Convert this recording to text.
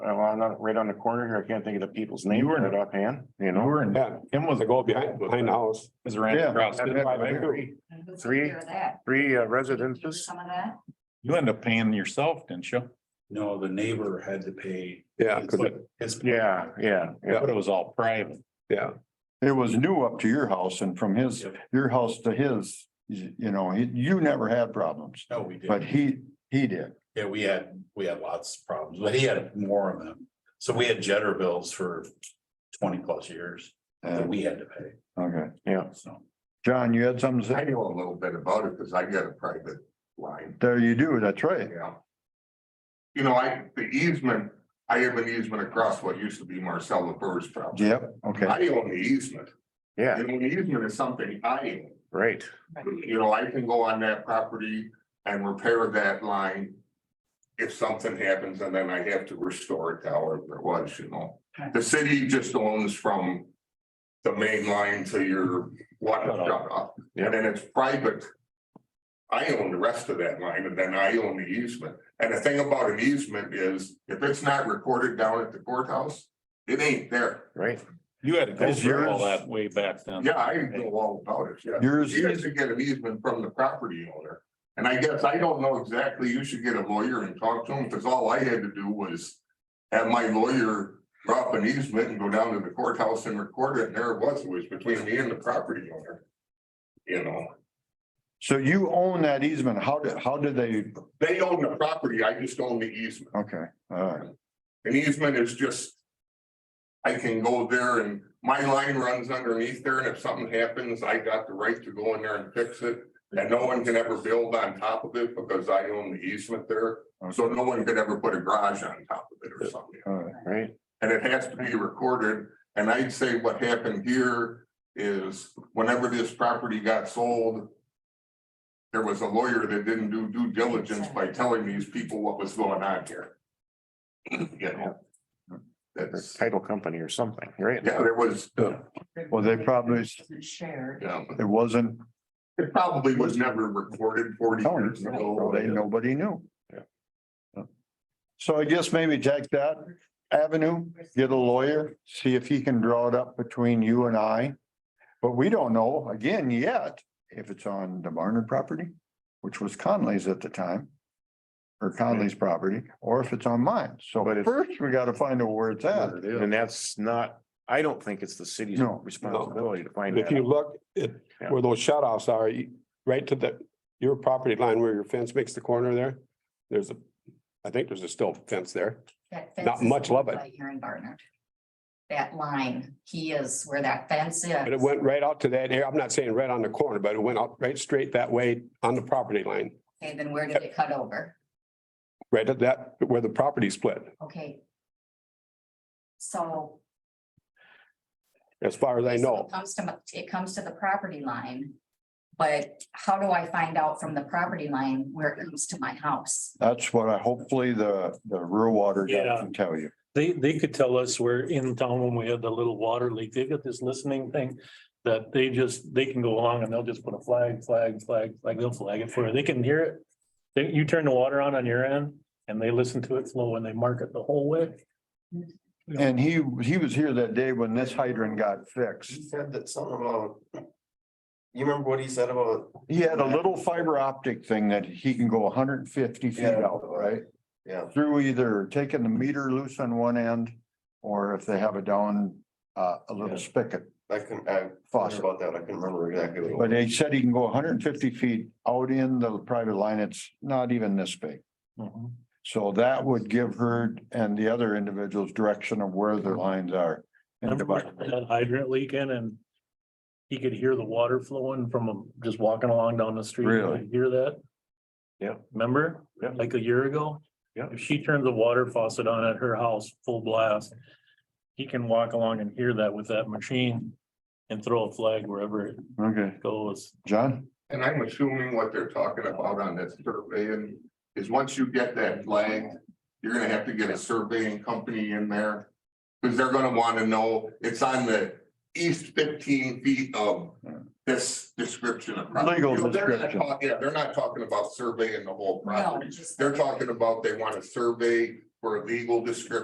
down, right on the corner here, I can't think of the people's name, You were in- right offhand, you You know? were in, Yeah, Kim was the a goal goal behind, behind the house. Is Randy Yeah, Kraus. I've had I my agree. three- Who's Three. taking care of that? Three uh, Do residences, Some of that? You ended up paying yourself, didn't you? No, the neighbor had to pay. Yeah, his- 'cause it- his- yeah, yeah, yeah. But it was all private. yeah, It was new up to your house and from his, Yep. your house to his, you you know, he- you never had problems, No, we did. but he, he did. Yeah, we had, we had lots of problems, but he had more of them. So we had jetter bills for twenty plus years that And, we had to pay, okay, so. John, you had something to I say? know a little bit about it because I got a private line, There you do, that's right. yeah. You know, I, the easement, I have an easement across what used to be Marcella Burr's property. Yep, okay, I own the easement, yeah, and an easement is something I right. own. You know, I can go on that property and repair that line. If something happens and then I have to restore it to however it was, you know. The city just owns from the main line to your water Shut off. shut off. And then it's private. I own the rest of that line and then I own the easement. And the thing about an easement is if it's not recorded down at the courthouse, it ain't there. Right, You had to go That's through all yours. that way back Um, then. Yeah, I know all about it, yeah. yours You have is, to get an easement from the property owner. And I guess I don't know exactly, you should get a lawyer and talk to him, because all I had to do was have my lawyer drop an easement and go down to the courthouse and record it, and there it was, it was between me and the property owner. You know, so you own that easement, how did, how did they, they own the property, I just own the easement. okay, all right, An easement is just. I can go there and my line runs underneath there, and if something happens, I got the right to go in there and fix it. And no one can ever build on top of it because I own the easement there, so okay, no one could ever put a garage on top of it or something. all right, right, And it has to be recorded, and I'd say what happened here is whenever this property got sold. There was a lawyer that didn't do due diligence by telling these people what was going on here. You know? or That's, title company or something, right? yeah, there was, yeah, Well, they probably- Isn't Shared. it wasn't, it probably was never recorded forty Oh, no, years ago. they, nobody knew. Yeah. So I guess maybe take that avenue, get a lawyer, see if he can draw it up between you and I. But we don't know, again, yet, if it's on the Barnard property, which was Conley's at the time. Or Conley's property, or if it's on mine, so But it's- first we gotta find out where it's at. And that's not, I don't think it's the city's No, no. responsibility to find If that. you out. look at Yeah. where those shut offs are, you- right to the, your property line where your fence makes the corner there. There's a, I think there's a still fence there. That fence Not is much love it. right Here in Barnard. That line, he is where that fence is. But it went right out to that area. I'm not saying right on the corner, but it went out right straight that way on the property line. Okay, then where did it cut over? Right at that, where the property split. Okay. So. As far as I So know, It Comes to, my- it comes to the property line. But how do I find out from the property line where it comes to my house? That's what I, hopefully the, the rural water guy Yeah. can tell you. They, they could tell us we're in town when we had the little water leak. They've got this listening thing that they just, they can go along and they'll just put a flag, flag, flag, flag, they'll flag it for you. They can hear it. They- you turn the water on on your end and they listen to it flow and they mark it the whole way. And he, he was here that day when this hydrant got fixed. He said that something about. You remember what he said about, He had a little fiber optic thing that he can go hundred and fifty feet Yeah. out, right? Yeah. Through either taking the meter loose on one end, or if they have it down, uh, a little spigot I couldn't, I thought faucet. about that, I couldn't remember exactly what it was. But he said he can go hundred and fifty feet out in the private line. It's not even this big. Mhm. So that would give her and the other individuals direction of where their lines are. and Remember divide. That hydrant leaking and he could hear the water flowing from just walking along down the street. Really? Hear that? Yeah. Remember? Yeah. Like a year ago? Yeah. If she turns the water faucet on at her house, full blast, he can walk along and hear that with that machine and throw a flag wherever it Okay, goes. John, And I'm assuming what they're talking about on that survey and is once you get that flag, you're gonna have to get a surveying company in there. Cause they're gonna wanna know, it's on the east fifteen feet of this description of. property. Legal You know, they're not description. talk- Yeah, they're not talking about surveying the whole No, property. just- They're talking about they wanna survey for a legal description